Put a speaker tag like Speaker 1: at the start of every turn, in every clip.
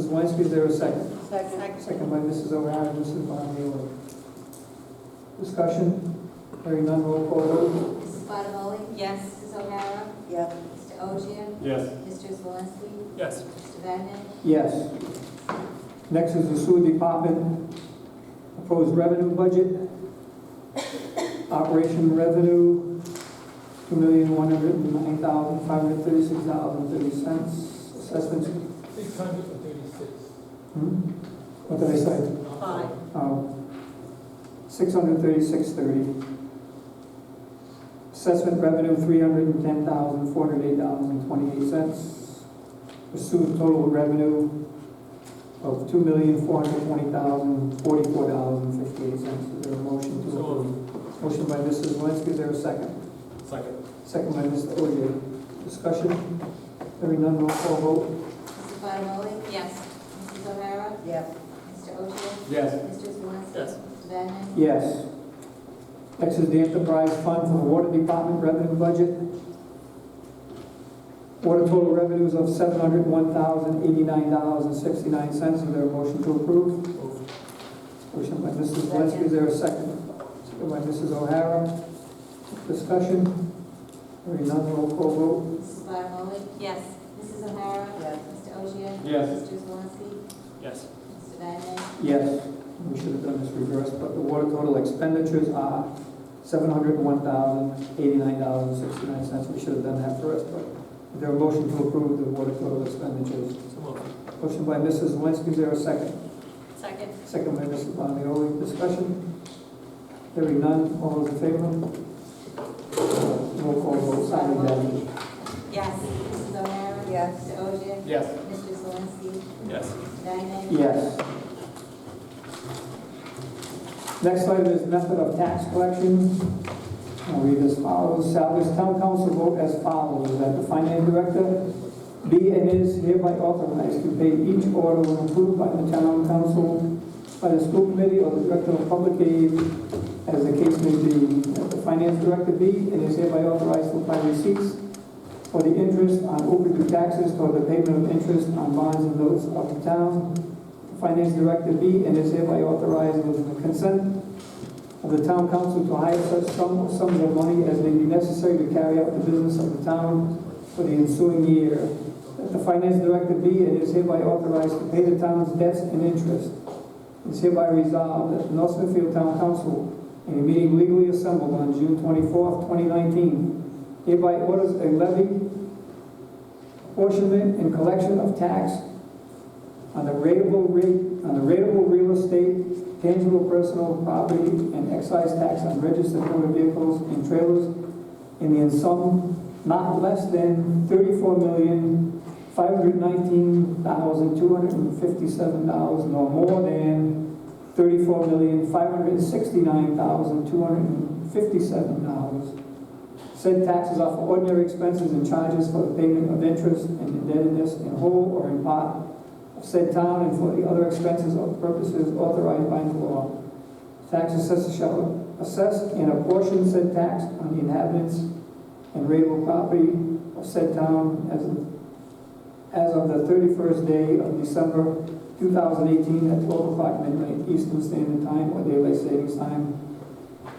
Speaker 1: Zelinski, is there a second?
Speaker 2: Second.
Speaker 1: Second by Mrs. O'Hara, and Mrs. Bonier. Discussion, hearing none, roll call vote.
Speaker 3: Mrs. Bottomoli?
Speaker 2: Yes.
Speaker 3: Mrs. O'Hara?
Speaker 2: Yes.
Speaker 3: Mr. Ogier?
Speaker 4: Yes.
Speaker 3: Mr. Zalinski?
Speaker 4: Yes.
Speaker 3: Mr. Vannen?
Speaker 1: Yes. Next is the sewer department, proposed revenue budget. Operation revenue, two million, one hundred and nine thousand, five hundred and thirty-six dollars and thirty cents. Assessments,
Speaker 4: Six hundred and thirty-six.
Speaker 1: hmm? What did I say?
Speaker 2: Five.
Speaker 1: Um, 636.30. Assessment revenue, $310,408.28. Pursued total revenue of $2,420,044.58. Is there a motion to
Speaker 4: So
Speaker 1: approve? Motion by Mrs. Zelinski, is there a second?
Speaker 4: Second.
Speaker 1: Second by Mr. Ogier. Discussion? Hearing none, roll call vote.
Speaker 3: Mrs. Bottomoli?
Speaker 2: Yes.
Speaker 3: Mrs. O'Hara?
Speaker 2: Yes.
Speaker 3: Mr. Ogier?
Speaker 4: Yes.
Speaker 3: Mr. Zalinski?
Speaker 4: Yes.
Speaker 3: Mr. Vannen?
Speaker 1: Yes. Next is the enterprise fund for the water department revenue budget. Water total revenues of seven hundred one thousand eighty-nine dollars and sixty-nine cents. Is there a motion to approve?
Speaker 4: Move.
Speaker 1: Motion by Mrs. Zelinski, is there a second? Second by Mrs. O'Hara. Discussion? Hearing none, roll call vote.
Speaker 3: Mrs. Bottomoli?
Speaker 2: Yes.
Speaker 3: Mrs. O'Hara?
Speaker 2: Yes.
Speaker 3: Mr. Ogier?
Speaker 4: Yes.
Speaker 3: Mr. Zalinski?
Speaker 4: Yes.
Speaker 3: Mr. Vannen?
Speaker 1: Yes. We should have done this reverse, but the water total expenditures are seven hundred one thousand eighty-nine dollars and sixty-nine cents. We should have done that first, but is there a motion to approve the water total expenditures?
Speaker 4: So moved.
Speaker 1: Motion by Mrs. Zelinski, is there a second?
Speaker 2: Second.
Speaker 1: Second by Mrs. Bonioli, discussion? Hearing none, all those in favor? Uh, Roll call
Speaker 4: Oh,
Speaker 1: vote, Sally Downing.
Speaker 2: Yes.
Speaker 3: Mrs. O'Hara?
Speaker 2: Yes.
Speaker 3: Mr. Ogier?
Speaker 4: Yes.
Speaker 3: Mr. Zalinski?
Speaker 4: Yes.
Speaker 3: Mr. Vannen?
Speaker 1: Yes. Next item is method of tax collection. I'll read as follows. Salvage Town Council vote as follows, that the finance director be and is hereby authorized to pay each order when approved by the town council, by the school committee, or the director of public aid, as the case may be. That the finance director be and is hereby authorized to apply receipts for the interest on overdue taxes toward the payment of interest on bonds and notes of the town, Finance Director B and is hereby authorized with the consent of the town council to hire such sum- sums of money as may be necessary to carry out the business of the town for the ensuing year. That the Finance Director B and is hereby authorized to pay the town's debts and interest. Is hereby resolved that the North Smithfield Town Council, in a meeting legally assembled on June 24th, 2019, hereby orders a levy, apportionment, and collection of tax on the rateable rate, on the rateable real estate, tangible personal property, and excise tax on registered motor vehicles and trailers in the sum not less than thirty-four million, five hundred nineteen thousand, two hundred and fifty-seven dollars, nor more than thirty-four million, five hundred sixty-nine thousand, two hundred and fifty-seven dollars. Said taxes are for ordinary expenses and charges for the payment of interest and indebtedness in whole or in part of said town and for the other expenses or purposes authorized by the law. Tax assessor shall assess and apportion said tax on the inhabitants and rateable property of said town as of, as of the thirty-first day of December two thousand eighteen at twelve o'clock midnight Eastern Standard Time or daylight savings time,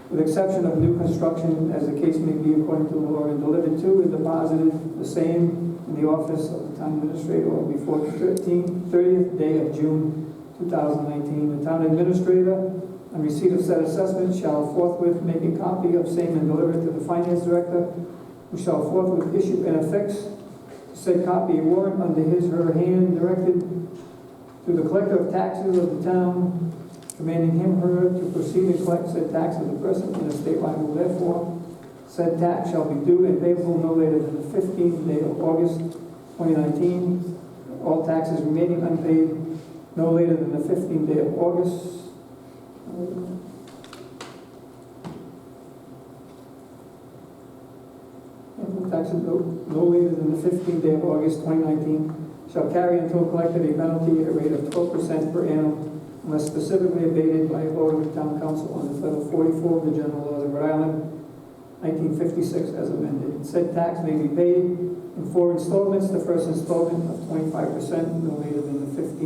Speaker 1: with exception of new construction, as the case may be according to the law, and delivered to and deposited the same in the office of the town administrator or before the 13th, 30th day of June 2019. The town administrator, on receipt of said assessment, shall forthwith make a copy of same and deliver it to the finance director, who shall forthwith issue and affix said copy a warrant under his or her hand directed to the collector of taxes of the town, commanding him or her to proceed and collect said tax of the person in a state liable therefore, Said tax shall be due and payable no later than the fifteenth day of August, twenty nineteen. All taxes remaining unpaid no later than the fifteenth day of August. And all taxes no, no later than the fifteenth day of August, twenty nineteen, shall carry until collected a penalty at a rate of twelve percent per annum unless specifically abated by a vote of the town council on the title forty-four of the general laws of Rhode Island 1956 as amended. Said tax may be paid in four installments, the first installment of 25% no later than the 15th